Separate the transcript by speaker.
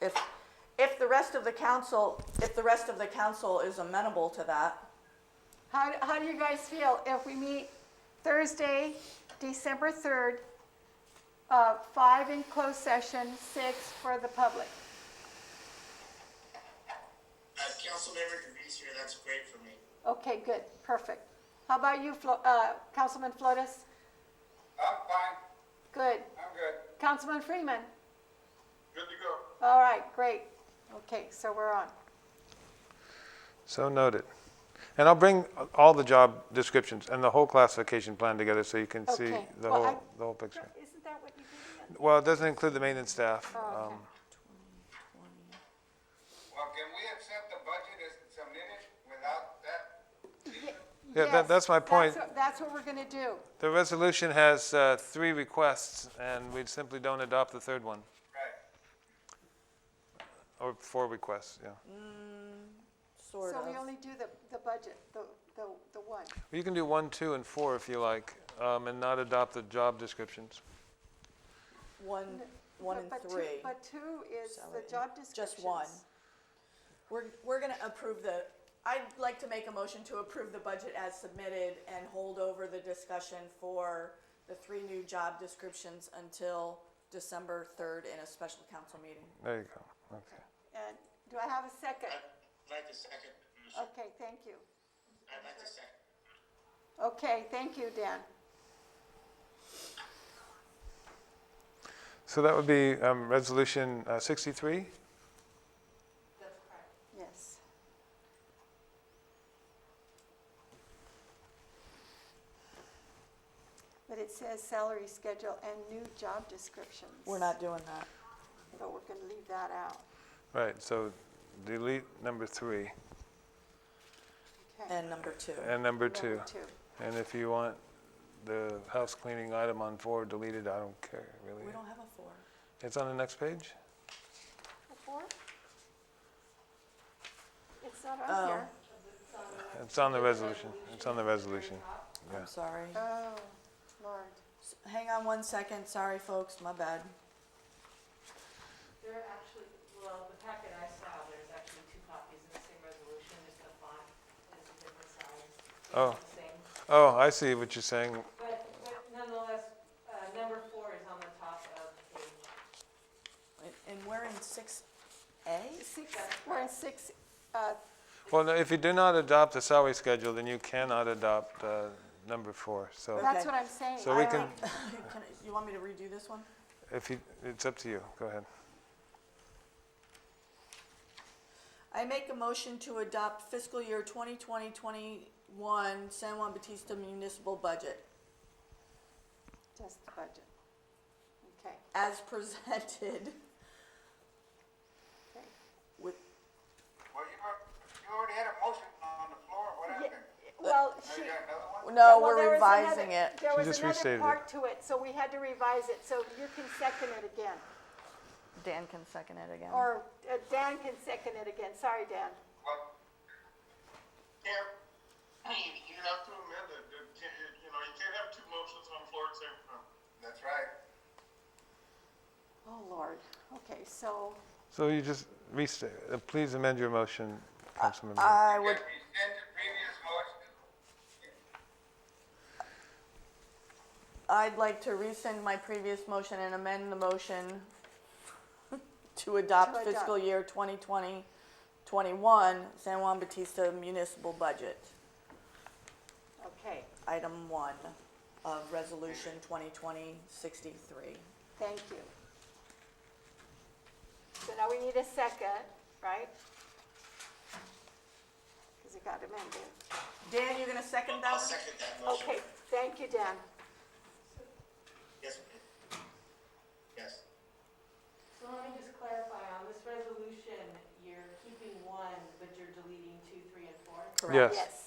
Speaker 1: If, if the rest of the council, if the rest of the council is amenable to that,
Speaker 2: How, how do you guys feel if we meet Thursday, December 3rd, uh, 5 in closed session, 6 for the public?
Speaker 3: As Councilmember DeVries here, that's great for me.
Speaker 2: Okay, good, perfect. How about you, Flo- uh, Councilman Flotis?
Speaker 4: I'm fine,
Speaker 2: Good.
Speaker 4: I'm good,
Speaker 2: Councilman Freeman?
Speaker 4: good to go.
Speaker 2: All right, great. Okay, so we're on.
Speaker 5: So noted. And I'll bring all the job descriptions and the whole classification plan together so you can see
Speaker 2: Okay.
Speaker 5: the
Speaker 2: Well,
Speaker 5: whole,
Speaker 2: I-
Speaker 5: the whole picture.
Speaker 2: Isn't that what you did?
Speaker 5: Well, it doesn't include the maintenance staff.
Speaker 2: Oh, okay.
Speaker 5: um,
Speaker 4: Well, can we accept the budget as submitted without that?
Speaker 5: Yeah, that-
Speaker 2: Yes,
Speaker 5: that's my point.
Speaker 2: what- That's what we're going to do.
Speaker 5: The resolution has uh, three requests, and we simply don't adopt the third one,
Speaker 4: Right.
Speaker 5: or four requests, yeah.
Speaker 1: sort
Speaker 2: So
Speaker 1: of.
Speaker 2: we only do the, the budget, the, the, the one.
Speaker 5: You can do one, two, and four if you like, um, and not adopt the job descriptions.
Speaker 1: One, one
Speaker 2: But-
Speaker 1: and
Speaker 2: but two-
Speaker 1: three.
Speaker 2: But two is the
Speaker 1: Salary.
Speaker 2: job descriptions.
Speaker 1: Just one. We're, we're gonna approve the, I'd like to make a motion to approve the budget as submitted and hold over the discussion for the three new job descriptions until December third in a special council meeting.
Speaker 5: There you go, okay.
Speaker 2: And do I have a second?
Speaker 3: I'd like to second, I'd
Speaker 2: Okay, thank you.
Speaker 3: like to second.
Speaker 2: Okay, thank you, Dan.
Speaker 5: So that would be um, Resolution uh, 63?
Speaker 2: Yes. But it says salary schedule and new job descriptions.
Speaker 1: We're not doing that.
Speaker 2: But we're gonna leave that out.
Speaker 5: Right, so delete number three
Speaker 2: Okay.
Speaker 1: And number two.
Speaker 5: and number two.
Speaker 2: Number two.
Speaker 5: And if you want the house cleaning item on four deleted, I don't care,
Speaker 1: We
Speaker 5: really.
Speaker 1: don't have a four.
Speaker 5: It's on the next page?
Speaker 2: A Four? It's not
Speaker 1: Oh.
Speaker 2: on here.
Speaker 5: It's on the resolution, it's on the resolution. Yeah.
Speaker 1: I'm sorry.
Speaker 2: Oh, Lord.
Speaker 1: S- Hang on one second. Sorry, folks, my bad.
Speaker 6: There are actually, well, the packet I saw, there's actually two copies of the same resolution, just the font is a different size. It's
Speaker 5: Oh.
Speaker 6: the same.
Speaker 5: Oh, I see what you're saying.
Speaker 6: But but nonetheless, uh, number four is on the top of page,
Speaker 1: And- And we're in six A?
Speaker 2: Six, we're in six, uh,
Speaker 5: Well, no, if you do not adopt the salary schedule, then you cannot adopt uh, number four. So
Speaker 2: that's
Speaker 1: Okay.
Speaker 2: what I'm saying.
Speaker 5: So we
Speaker 2: I
Speaker 5: can-
Speaker 2: like-
Speaker 1: Can I- You want me to redo this one?
Speaker 5: if you, it's up to you, go ahead.
Speaker 1: I make a motion to adopt fiscal year 2020-21 San Juan Batista municipal budget
Speaker 2: Just the budget. Okay,
Speaker 1: as presented
Speaker 2: okay.
Speaker 1: with,
Speaker 4: Well, you, al- you already had a motion on the floor, what
Speaker 2: Yeah,
Speaker 4: happened?
Speaker 2: Well,
Speaker 4: Now
Speaker 2: she.
Speaker 4: you got another one?
Speaker 1: no,
Speaker 2: well, there
Speaker 1: we're
Speaker 2: was
Speaker 1: revising
Speaker 2: another-
Speaker 1: it.
Speaker 2: There
Speaker 5: She
Speaker 2: was
Speaker 5: just
Speaker 2: another
Speaker 5: restated it.
Speaker 2: part to it, so we had to revise it, so you can second it again.
Speaker 1: Dan can second it again.
Speaker 2: Or uh, Dan can second it again, sorry, Dan.
Speaker 4: Well,
Speaker 3: Yeah, you have to amend it, you can't, you know, you can't have two motions on the floor at the same time.
Speaker 4: That's right.
Speaker 2: Oh, Lord, okay, so,
Speaker 5: So you just restate, uh, please amend your motion, Councilmember.
Speaker 2: Uh,
Speaker 1: I
Speaker 4: Did
Speaker 1: would,
Speaker 4: we send the previous motion?
Speaker 1: I'd like to rescind my previous motion and amend the motion to adopt
Speaker 2: adopt.
Speaker 1: fiscal year 2020-21 San Juan Batista municipal budget,
Speaker 2: okay,
Speaker 1: item one of resolution 2020-63.
Speaker 2: thank you. So now we need a second, right? Because it got amended.
Speaker 1: Dan, you gonna second that?
Speaker 3: I'll
Speaker 1: one?
Speaker 3: second that
Speaker 2: Okay,
Speaker 3: motion.
Speaker 2: thank you, Dan.
Speaker 3: Yes, ma'am. Yes.
Speaker 6: so let me just clarify, on this resolution, you're keeping one, but you're deleting two, three, and four?
Speaker 1: Correct.
Speaker 5: Yes,
Speaker 2: Yes.
Speaker 6: um,